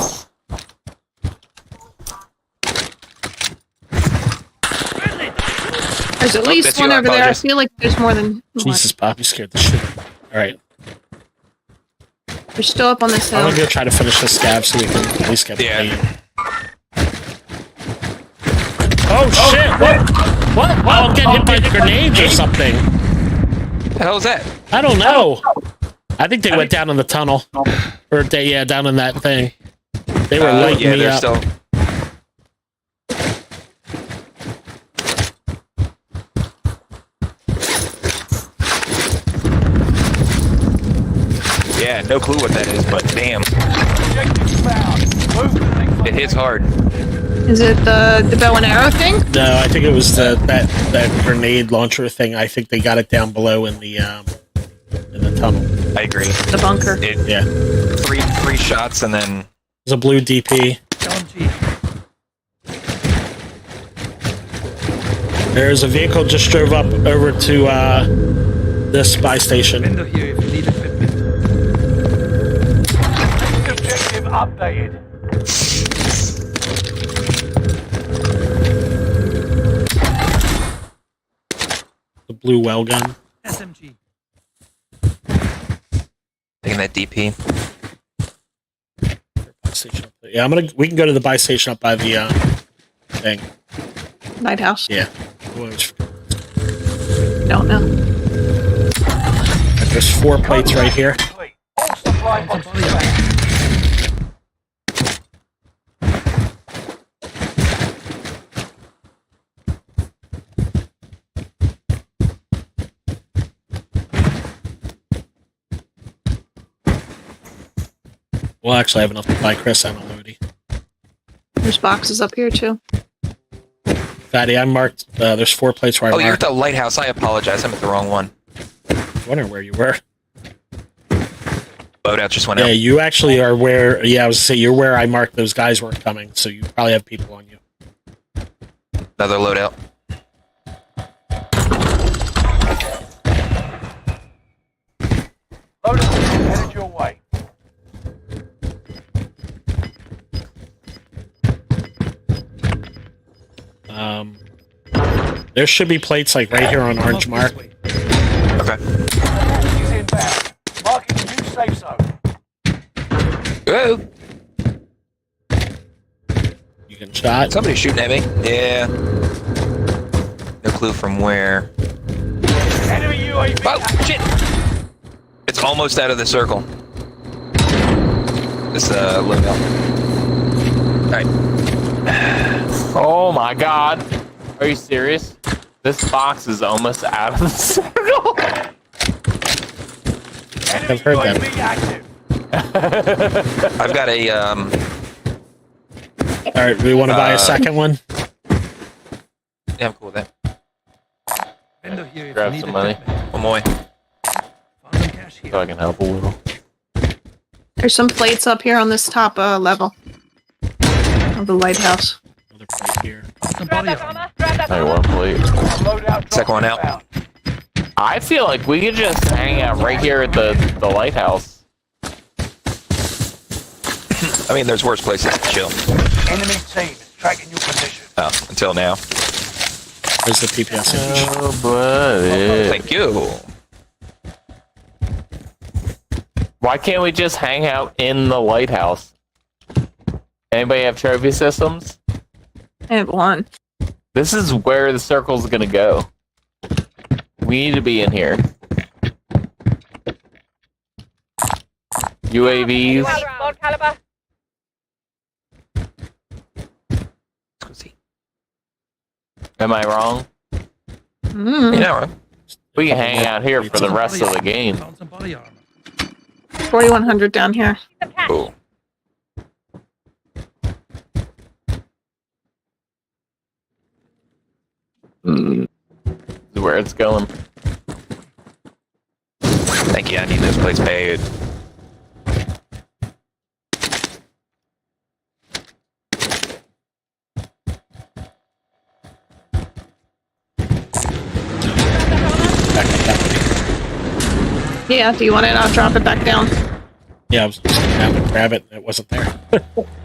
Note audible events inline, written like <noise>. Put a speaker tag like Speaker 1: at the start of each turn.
Speaker 1: There's at
Speaker 2: Oh,
Speaker 1: least
Speaker 2: that's you,
Speaker 1: one
Speaker 2: I
Speaker 1: over there. I
Speaker 2: apologize.
Speaker 1: feel like there's more than one.
Speaker 3: Jesus, Bobby scared the shit. out of me. All right,
Speaker 1: They're still up on this
Speaker 3: I'm
Speaker 1: hill.
Speaker 3: gonna go try to finish this scab so we can at least get
Speaker 2: Yeah.
Speaker 3: the lead. Oh, shit! What? What? Oh, I'm getting hit by grenades or something.
Speaker 2: The hell is that?
Speaker 3: I don't know. I think they went down in the tunnel, or they yeah down in that thing. They were
Speaker 2: Uh,
Speaker 3: lighting
Speaker 2: yeah,
Speaker 3: me
Speaker 2: they're
Speaker 3: up.
Speaker 2: still. Yeah, no clue what that is, but damn, it hits hard.
Speaker 1: Is it the the bow and arrow thing?
Speaker 3: No, I think it was the that that grenade launcher thing. I think they got it down below in the um in the tunnel.
Speaker 2: I agree.
Speaker 1: The bunker.
Speaker 2: It
Speaker 3: Yeah, it
Speaker 2: three three shots and then
Speaker 3: was a blue DP. There's a vehicle just drove up over to uh the spy station.
Speaker 4: Window here if you need equipment.
Speaker 5: Objective updated.
Speaker 3: The blue well gun.
Speaker 4: SMG.
Speaker 2: taking that DP.
Speaker 3: Buy station. Yeah, I'm gonna. We can go to the buy station up by the uh, thing.
Speaker 1: Lighthouse.
Speaker 3: Yeah. Well,
Speaker 1: Don't know.
Speaker 3: There's four plates right here.
Speaker 5: Complete. All supply boxes back.
Speaker 3: Well, actually, I have enough to buy Chris and Lodi.
Speaker 1: There's boxes up here too.
Speaker 3: Fatty, I marked. Uh, there's four plates where I
Speaker 2: Oh, you're at
Speaker 3: marked.
Speaker 2: the lighthouse. I apologize. I'm at the wrong one.
Speaker 3: I wonder where you were.
Speaker 2: Loadout just went
Speaker 3: Yeah,
Speaker 2: out.
Speaker 3: you actually are where. Yeah, I was gonna say you're where I marked those guys were coming. So you probably have people on you.
Speaker 2: Another loadout.
Speaker 5: Loaded vehicle headed your way.
Speaker 3: Um, there should be plates like right here on orange mark.
Speaker 2: Okay.
Speaker 5: Support is inbound. Marking new safe zone.
Speaker 2: Oh,
Speaker 3: You can shot.
Speaker 2: somebody's shooting at me. Yeah. No clue from where.
Speaker 5: Enemy UAV.
Speaker 2: Oh shit! It's almost out of the circle. This uh loadout. Alright.
Speaker 6: Oh my god. Are you serious? This box is almost out of the <laughs> circle.
Speaker 5: Enemy
Speaker 3: I've heard that.
Speaker 5: UAV active.
Speaker 2: I've got a um
Speaker 3: All right, we want to buy
Speaker 2: Uh,
Speaker 3: a second one.
Speaker 2: yeah, I'm cool with that.
Speaker 4: Window here if
Speaker 6: Grab
Speaker 4: you need
Speaker 6: some money.
Speaker 4: equipment.
Speaker 2: One more.
Speaker 4: Found some cash
Speaker 6: So
Speaker 4: here.
Speaker 6: I can help a little.
Speaker 1: There's some plates up here on this top uh, level of the lighthouse.
Speaker 3: Another plate here.
Speaker 4: Some
Speaker 7: Grab
Speaker 4: body
Speaker 7: that
Speaker 4: armor.
Speaker 7: armor. Grab that
Speaker 6: I
Speaker 7: armor.
Speaker 6: won't believe.
Speaker 5: Loadout drop
Speaker 2: Second one out.
Speaker 5: inbound.
Speaker 6: I feel like we could just hang out right here at the, the lighthouse.
Speaker 2: I mean there's worse places to chill.
Speaker 5: Enemy team is tracking your position.
Speaker 2: Oh, until now.
Speaker 3: There's the PPS image.
Speaker 6: Oh, buddy.
Speaker 2: Thank you.
Speaker 6: Why can't we just hang out in the lighthouse? Anybody have trophy systems?
Speaker 1: I have one.
Speaker 6: This is where the circle's gonna go. We need to be in here. UAVs.
Speaker 7: Gold caliber.
Speaker 2: Let's go see.
Speaker 6: Am I wrong?
Speaker 1: Mm,
Speaker 2: You know, right?
Speaker 6: We can hang out here for the
Speaker 4: Some
Speaker 6: rest
Speaker 4: body
Speaker 6: of the
Speaker 4: armor.
Speaker 6: game.
Speaker 4: Found some body armor.
Speaker 1: 4100 down here.
Speaker 7: Some cash.
Speaker 2: Cool.
Speaker 6: This is where it's going.
Speaker 2: Thank you, I need those plates paid.
Speaker 1: Yeah, do you want it? I'll drop it back down.
Speaker 3: Yeah, I was just gonna grab it. It wasn't there.